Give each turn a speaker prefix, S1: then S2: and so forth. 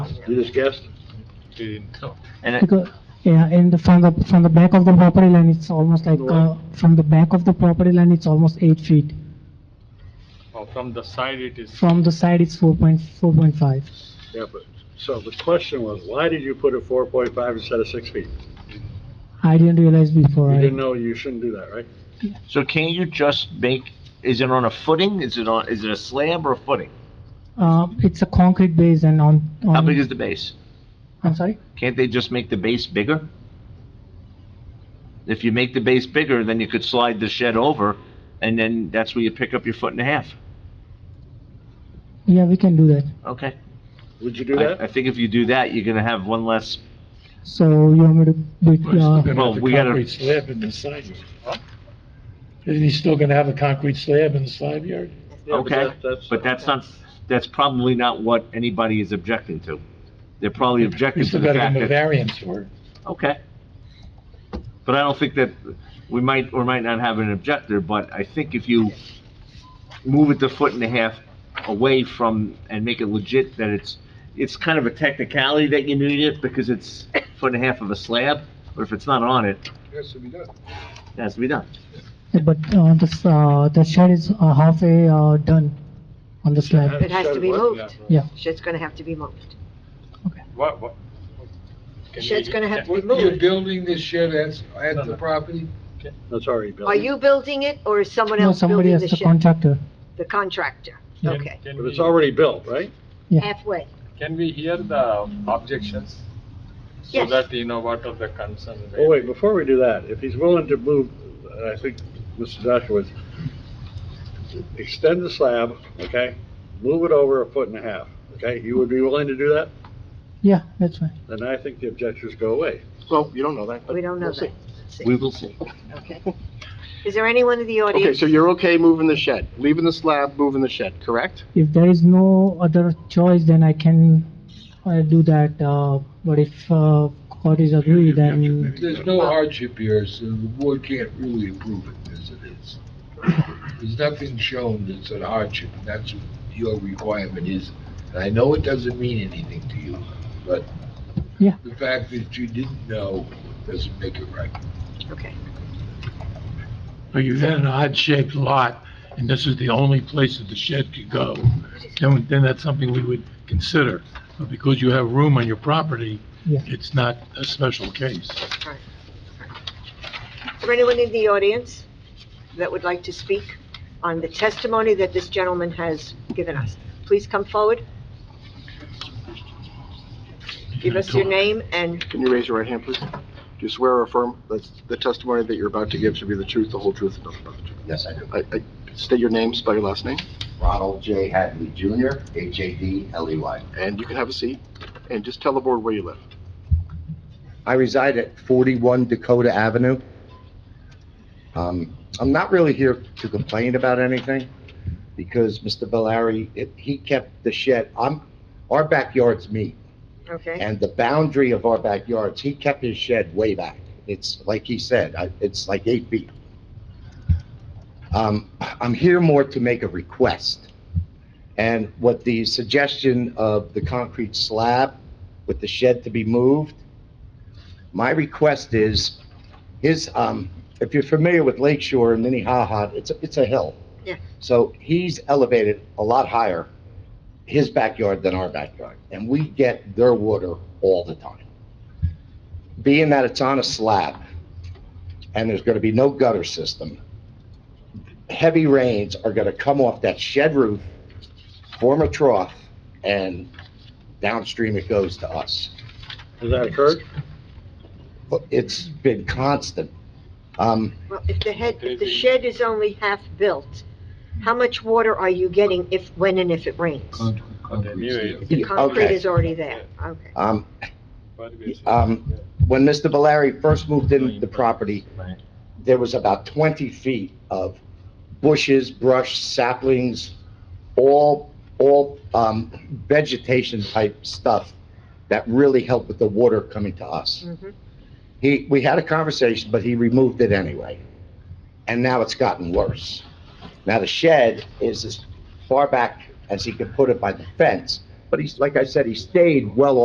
S1: You discussed?
S2: And it-
S3: Because, yeah, and from the, from the back of the property line, it's almost like, uh, from the back of the property line, it's almost eight feet.
S4: Or Uh, from the side it is,
S3: From the side, it's four point, four point five.
S1: Yeah, but, so the question was, why did you put a four point five instead of six feet?
S3: I didn't realize before.
S1: You
S3: I-
S1: didn't know you shouldn't do that, right?
S2: so can you just make, is it on a footing? Is it on, is it a slab or a footing?
S3: Uh, it's a concrete base and on,
S2: How big
S3: on,
S2: is the base?
S3: I'm sorry?
S2: Can't they just make the base bigger? If you make the base bigger, then you could slide the shed over, and then that's where you pick up your foot and a half.
S3: Yeah, we can do that.
S2: Okay.
S1: Would you do
S2: I, I
S1: that?
S2: think if you do that, you're gonna have one less,
S3: So you want me to, be- uh,
S2: well, we gotta,
S5: Concrete slab in the side yard. Isn't he still gonna have a concrete slab in the side yard?
S1: Yeah, but
S2: okay,
S1: that- that's-
S2: but that's not, that's probably not what anybody is objecting to. They're probably objecting
S5: He's
S2: to the
S5: still gotta give
S2: fact
S5: him a
S2: that,
S5: variance for it.
S2: okay. But I don't think that, we might or might not have an objector, but I think if you move it the foot and a half away from, and make it legit that it's, it's kind of a technicality that you need it, because it's foot and a half of a slab, but if it's not on it, it has to be done.
S3: but, uh, the, s- uh, the shed is uh, halfway, uh, done on the slab.
S6: It has to be
S1: Shed what?
S6: moved.
S3: Yeah.
S6: Shed's gonna have to be moved.
S4: what, what?
S6: Shed's gonna have to be
S7: You're
S6: moved.
S7: building this shed at, at the property?
S1: That's already built.
S6: Are you building it or is someone
S3: No,
S6: else
S3: somebody
S6: building
S3: has
S6: the
S3: the
S6: shed?
S3: contractor.
S6: The contractor,
S3: Yeah.
S6: okay.
S4: Can
S1: But it's
S4: we-
S1: already built, right?
S3: Yeah.
S6: Halfway,
S4: Can we hear the objections? So
S6: Yes.
S4: that you know what are the concerns.
S1: Oh, wait, before we do that, if he's willing to move, and I think Mr. Joshua is, extend the slab, okay? Move it over a foot and a half, okay? You would be willing to do that?
S3: Yeah, that's fine.
S1: Then I think the objections go away.
S8: Well, you don't know that, but.
S6: we don't know
S8: we'll see.
S6: that. Let's see.
S2: We will see.
S6: Okay. Is there anyone in the
S8: Okay,
S6: audience?
S8: so you're okay moving the shed, leaving the slab, moving the shed, correct?
S3: If there is no other choice, then I can, uh, do that, uh, but if, uh, court is agree, then,
S7: There's no hardship here, so the board can't really approve it as it is. There's nothing shown that's a hardship, and that's what your requirement is. And I know it doesn't mean anything to you, but
S3: Yeah.
S7: the fact that you didn't know doesn't make it right.
S6: Okay,
S5: But you've got an odd-shaped lot, and this is the only place that the shed could go. Then, then that's something we would consider, but because you have room on your property,
S3: Yeah.
S5: it's not a special case.
S6: is there anyone in the audience that would like to speak on the testimony that this gentleman has given us? Please come forward, give us your name and,
S8: Can you raise your right hand, please? Do you swear or affirm that the testimony that you're about to give should be the truth, the whole truth, and nothing but the truth?
S9: Yes, I do.
S8: I, I, state your name, spell your last name,
S9: Ronald J. Hadley Jr., H-A-D-L-E-Y.
S8: and you can have a seat, and just tell the board where you live.
S9: I reside at 41 Dakota Avenue. Um, I'm not really here to complain about anything, because Mr. Valari, it- he kept the shed, I'm, our backyard's me,
S6: okay?
S9: and the boundary of our backyards, he kept his shed way back. It's, like he said, I- it's like eight feet. Um, I'm here more to make a request. And what the suggestion of the concrete slab with the shed to be moved, my request is, his, um, if you're familiar with Lake Shore and Minnehaha, it's, a- it's a hill.
S6: Yeah.
S9: So he's elevated a lot higher, his backyard than our backyard, and we get their water all the time. Being that it's on a slab, and there's gonna be no gutter system, heavy rains are gonna come off that shed roof, form a trough, and downstream it goes to us.
S1: Has that occurred?
S9: But It's been constant. Um,
S6: Well, if the head, if the shed is only half-built, how much water are you getting if, when and if it rains? The concrete
S9: Okay.
S6: is already there, okay.
S9: um, um, when Mr. Valeri first moved into the property, there was about 20 feet of bushes, brush, saplings, all, all um, vegetation type stuff that really helped with the water coming to us.
S6: Mhm.
S9: He, we had a conversation, but he removed it anyway. And now it's gotten worse. Now the shed is as far back as he could put it by the fence, But he's, like I said, he stayed well